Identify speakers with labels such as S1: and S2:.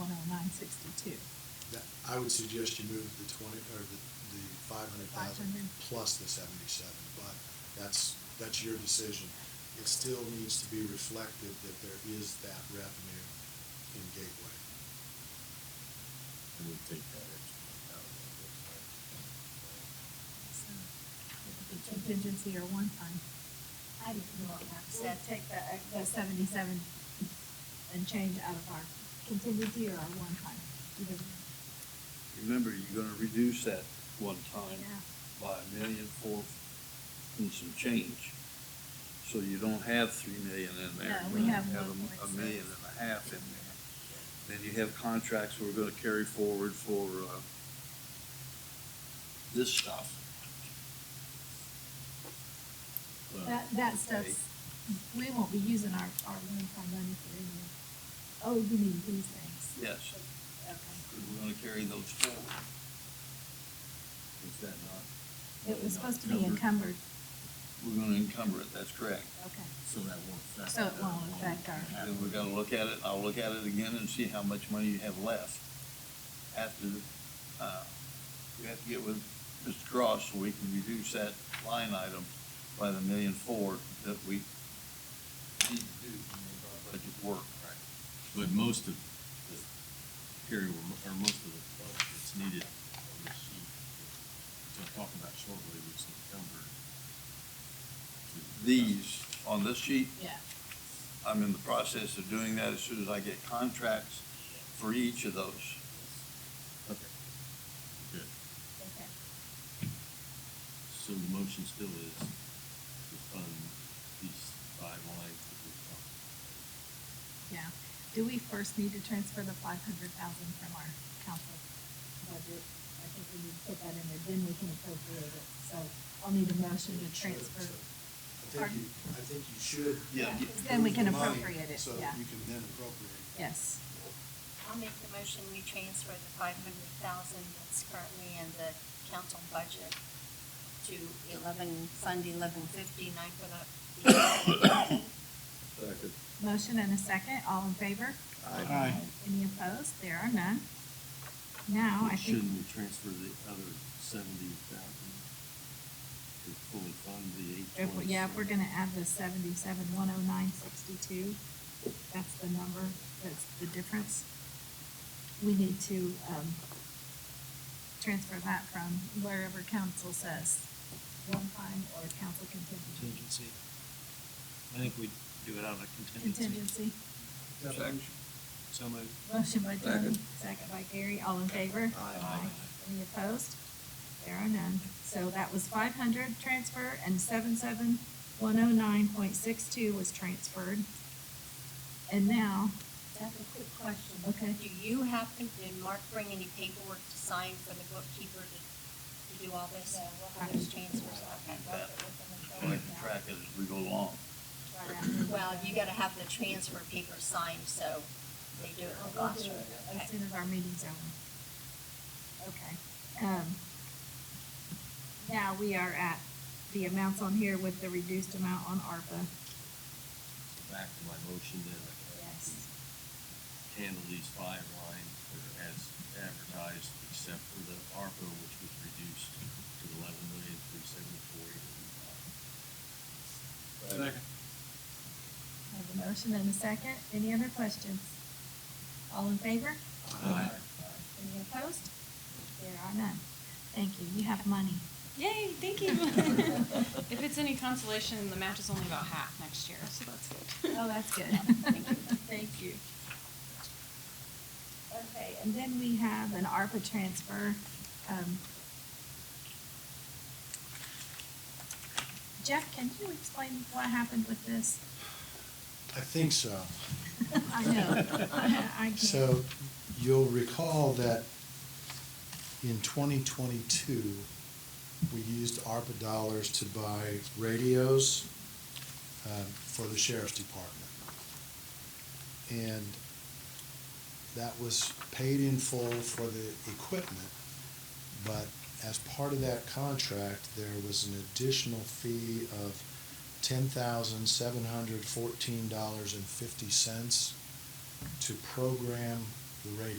S1: oh
S2: I would suggest you move the twenty, or the, the five hundred thousand
S1: 500.
S2: plus the seventy-seven, but that's, that's your decision. It still needs to be reflected that there is that revenue in Gateway.
S3: I would take that extra out of
S1: So, Contingency or one time. I didn't know what Mark
S4: We'll
S1: said.
S4: take that extra.
S1: The seventy-seven and change out of our contingency or our one time. either one.
S5: Remember, you're gonna reduce that one time
S1: Yeah.
S5: by a million four and some change. So you don't have three million in there.
S1: No, we
S5: You
S1: have
S5: a-
S1: 1.6.
S5: A million and a half in there. Then you have contracts we're gonna carry forward for, uh, this stuff. Uh,
S3: that.
S1: That, that stuff's, we won't be using our, our one time money for any, of- oh, you mean these things?
S5: Yes,
S1: Okay.
S5: because we're gonna carry those forward. Is that not?
S1: It was supposed to be encumbered,
S5: We're gonna encumber it, that's correct.
S1: okay.
S3: So that won't affect.
S1: So it
S3: that
S1: won't affect our-
S3: half.
S5: Then we're gonna look at it, I'll look at it again and see how much money you have left. After, uh, we have to get with Mr. Cross so we can reduce that line item by the million four that we need to do to make our budget work.
S3: But most of the carry, or most of the funds that's needed on this sheet, which I'll talk about shortly, which is encumbered. to-
S5: These, on this sheet,
S1: Yeah.
S5: I'm in the process of doing that as soon as I get contracts for each of those.
S3: Okay. Good.
S1: Okay.
S3: So the motion still is to fund these five lines that we talked about.
S1: Yeah. Do we first need to transfer the five hundred thousand from our council budget? I think we need to put that in there, then we can appropriate it. So I'll need a motion to transfer.
S2: I think
S1: Pardon?
S2: you, I think you should.
S5: Yeah. Yeah,
S1: 'cause then we
S2: move
S1: can
S2: the money
S1: appropriate it, yeah.
S2: So you can then appropriate.
S1: Yes.
S4: I'll make the motion, we transfer the five hundred thousand that's currently in the council budget to eleven, fund eleven fifty-nine for the.
S5: Second.
S1: Motion and a second, all in favor?
S2: Aye.
S1: Any opposed? There are none. Now, Oh, I think,
S3: Shouldn't we transfer the other seventy thousand to fully fund the eight
S1: if, we-
S3: twenty?
S1: yeah, if we're gonna add the seventy-seven, one oh nine, sixty-two, that's the number, that's the difference. We need to, um, transfer that from wherever council says, one time or council contingency.
S6: contingency. I think we do it out of a contingency.
S1: Contingency.
S2: Definitely.
S6: So moved.
S1: Motion by John,
S5: Second.
S1: second by Gary, all in favor? Aye. Any opposed? There are none. So that was five hundred transfer and seven seven one oh nine point six two was transferred. And now,
S4: That's a quick question.
S1: Okay.
S4: Do you happen, did Mark bring any paperwork to sign for the bookkeeper to, to do all this? For those transfers, okay.
S5: So I can track it as we go along.
S4: Well, you gotta have the transfer paper signed, so they do it in the
S1: as
S4: classroom. Okay.
S1: soon Oh, as our meeting's over. Okay, um, now we are at the amounts on here with the reduced amount on ARPA.
S3: Back to my motion then, I can
S1: Yes.
S3: handle these five lines that are as advertised, except for the ARPA, which was reduced to eleven million, three seventy-four, eighty-five.
S1: I have a motion and a second. Any other questions? All in favor?
S3: Aye.
S1: Any opposed? There are none. Thank you, you have money.
S7: Yay, thank you. If it's any consolation, the match is only about half next year, so that's good.
S1: Oh, that's good.
S7: Thank you. Thank you.
S1: Okay, and then we have an ARPA transfer. um, Jeff, can you explain what happened with this?
S2: I think so.
S1: I know, I I can't.
S2: So you'll recall that in twenty twenty-two, we used ARPA dollars to buy radios um, for the sheriff's department. And that was paid in full for the equipment, but as part of that contract, there was an additional fee of ten thousand seven hundred fourteen dollars and fifty cents to program the radio.